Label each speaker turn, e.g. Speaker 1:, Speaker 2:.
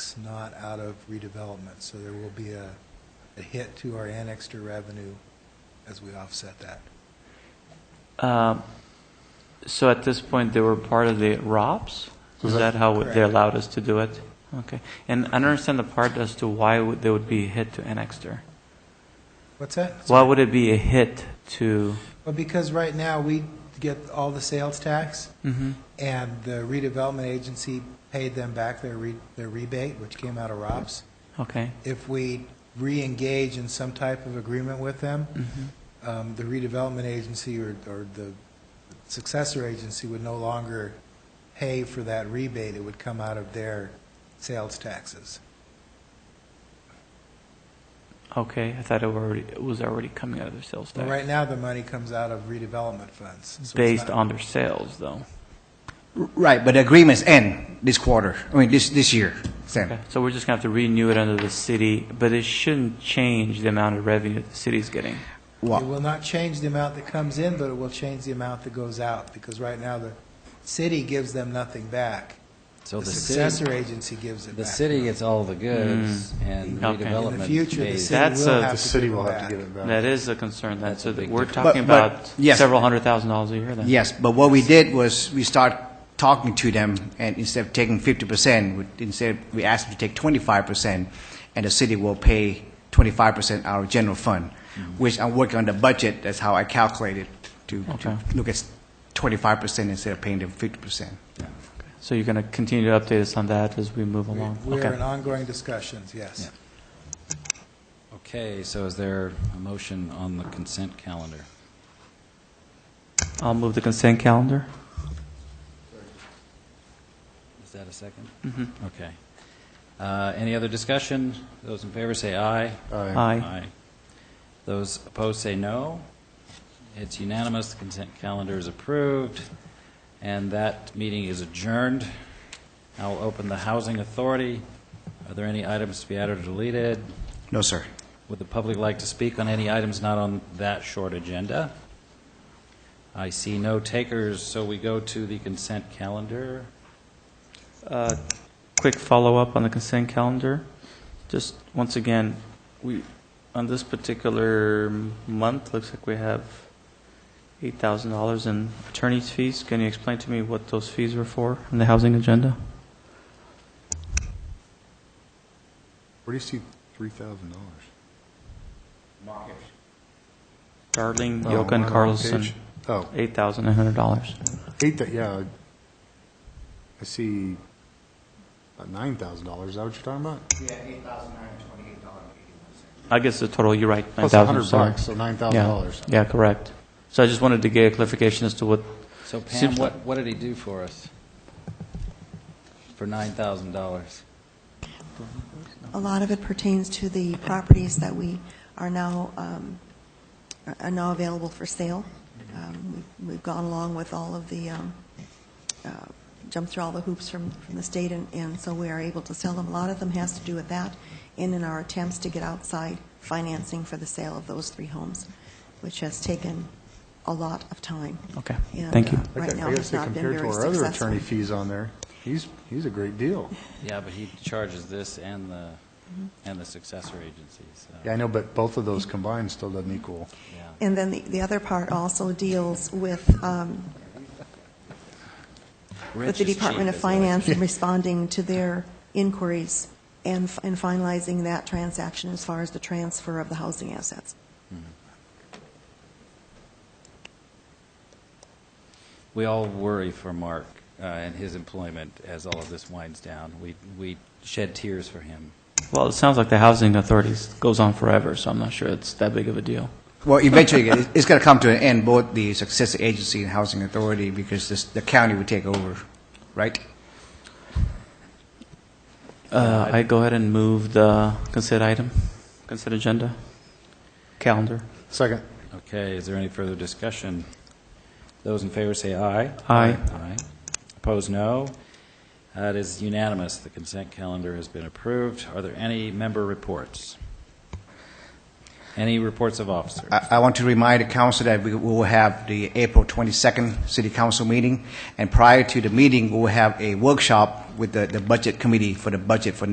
Speaker 1: that's not out of redevelopment, so there will be a, a hit to our annexed revenue as we offset that.
Speaker 2: Um, So at this point, they were part of the ROPS? Is that how they
Speaker 1: Correct.
Speaker 2: allowed us to do it? Okay. And I don't understand the part as to why would- they would be a hit to Annexter.
Speaker 1: What's that?
Speaker 2: Why E would it be a hit to,
Speaker 1: Well, because right now, we get all the sales tax,
Speaker 2: Mhm.
Speaker 1: and the redevelopment agency paid them back their re, their rebate, which came out of ROPS.
Speaker 2: okay,
Speaker 1: If we re-engage in some type of agreement with them, um, the redevelopment agency or, or the successor agency would no longer pay for that rebate, it would come out of their sales taxes.
Speaker 2: okay, I thought it were already- it was already coming out of their sales
Speaker 1: But
Speaker 2: tax.
Speaker 1: right now, the money comes out of redevelopment funds. so it's
Speaker 2: Based
Speaker 1: not-
Speaker 2: on their sales, though.
Speaker 3: Right, but the agreements end this quarter, I mean, this, this year, Sam.
Speaker 2: Okay. So we're just going to have to renew it under the city, but it shouldn't change the amount of revenue the city's getting.
Speaker 1: It
Speaker 3: Well,
Speaker 1: will not change the amount that comes in, but it will change the amount that goes out, because right now, the city gives them nothing back.
Speaker 4: So
Speaker 1: The
Speaker 4: the city,
Speaker 1: successor agency gives it back.
Speaker 4: the city gets all the goods and
Speaker 2: Mm. Okay.
Speaker 1: In the
Speaker 4: redevelopment
Speaker 1: future, the
Speaker 4: pays.
Speaker 1: city
Speaker 2: That's
Speaker 1: will
Speaker 2: a-
Speaker 1: have
Speaker 5: uh, The
Speaker 1: to
Speaker 5: city
Speaker 1: give
Speaker 5: will
Speaker 1: it
Speaker 5: have
Speaker 1: back.
Speaker 5: to give it back.
Speaker 2: That is a concern, then.
Speaker 4: That's
Speaker 2: So
Speaker 4: a
Speaker 2: that
Speaker 4: big
Speaker 2: we're
Speaker 4: difference.
Speaker 2: talking
Speaker 3: But- but-
Speaker 2: about
Speaker 3: yes.
Speaker 2: several hundred thousand dollars a year, then.
Speaker 3: yes, but what we did was, we start talking to them, and instead of taking fifty percent, we instead, we asked them to take twenty-five percent, and the city will pay twenty-five percent out of general fund,
Speaker 2: Mm-hmm.
Speaker 3: which I'm working on the budget, that's how I calculated, to,
Speaker 2: Okay.
Speaker 3: to look at twenty-five percent instead of paying them fifty percent.
Speaker 2: So you're going to continue to update us on that as we move along?
Speaker 1: We- We're in
Speaker 2: Okay.
Speaker 1: ongoing discussions, yes.
Speaker 4: Okay, so is there a motion on the consent calendar?
Speaker 2: I'll move the consent calendar.
Speaker 4: Is that a 2nd Mm-hmm. Okay. Uh, Any other discussion? Those in favor say aye.
Speaker 2: Aye.
Speaker 4: Those opposed say no. It's unanimous, the consent calendar is approved, and that meeting is adjourned. I'll open the Housing Authority. Are there any items to be added or deleted?
Speaker 3: No, sir.
Speaker 4: Would the public like to speak on any items not on that short agenda? I see no takers, so we go to the consent calendar.
Speaker 2: Uh, Quick follow-up on the consent calendar. Just, once again, we, on this particular month, looks like we have $8,000 in attorney's fees. Can you explain to me what those fees were for on the housing agenda?
Speaker 5: Where do you see three thousand dollars?
Speaker 2: Darling, Yoka, and Carlson,
Speaker 5: Oh,
Speaker 2: $8,100.
Speaker 5: eight, thou- yeah. I see about nine thousand dollars. Is that what you're talking about?
Speaker 3: Yeah, eight thousand nine hundred twenty-eight dollars and eighty-one cents.
Speaker 2: I guess the total, you're right,
Speaker 5: Plus a hundred
Speaker 2: 9,000, sorry.
Speaker 5: bucks, so nine thousand
Speaker 2: Yeah,
Speaker 5: dollars.
Speaker 2: yeah, correct. So I just wanted to get a clarification as to what,
Speaker 4: So Pam,
Speaker 2: Seems
Speaker 4: what, what did he do for us? For $9,000?
Speaker 6: A lot of it pertains to the properties that we are now, um, are now available for sale. Um, we've- We've gone along with all of the, um, uh, jumped through all the hoops from, from the state, and, and so we are able to sell them. A lot of them has to do with that, and in our attempts to get outside financing for the sale of those three homes, which has taken a lot of time.
Speaker 2: okay,
Speaker 6: And,
Speaker 2: thank you.
Speaker 6: uh,
Speaker 5: I
Speaker 6: Right now,
Speaker 5: gotta
Speaker 6: has
Speaker 5: say,
Speaker 6: not been
Speaker 5: compared to
Speaker 6: very
Speaker 5: our other attorney
Speaker 6: successful.
Speaker 5: fees on there, he's, he's a great deal.
Speaker 4: Yeah, but he charges this and the,
Speaker 6: Mm-hmm.
Speaker 4: and the successor agencies,
Speaker 5: Yeah, I know, but both of those combined still doesn't equal.
Speaker 4: yeah.
Speaker 6: And then the, the other part also deals with, um, with the Department of Finance and responding to their inquiries and f- and finalizing that transaction as far as the transfer of the housing assets.
Speaker 4: We all worry for Mark uh, and his employment as all of this winds down. We, we shed tears for him.
Speaker 2: Well, it sounds like the housing authorities goes on forever, so I'm not sure it's that big of a deal.
Speaker 3: Well, eventually, it- it's going to come to an end, both the successor agency and housing authority, because this, the county would take over, right?
Speaker 2: Uh, I go ahead and move the consent item, consent agenda, calendar.
Speaker 5: Second.
Speaker 4: Okay, is there any further discussion? Those in favor say aye.
Speaker 2: Aye.
Speaker 4: Aye. Opposed, no. That is unanimous. The consent calendar has been approved. Are there any member reports? Any reports of officers?
Speaker 3: I, I want to remind the council that we will have the April 22nd city council meeting, and prior to the meeting, we will have a workshop with the, the budget committee for the budget for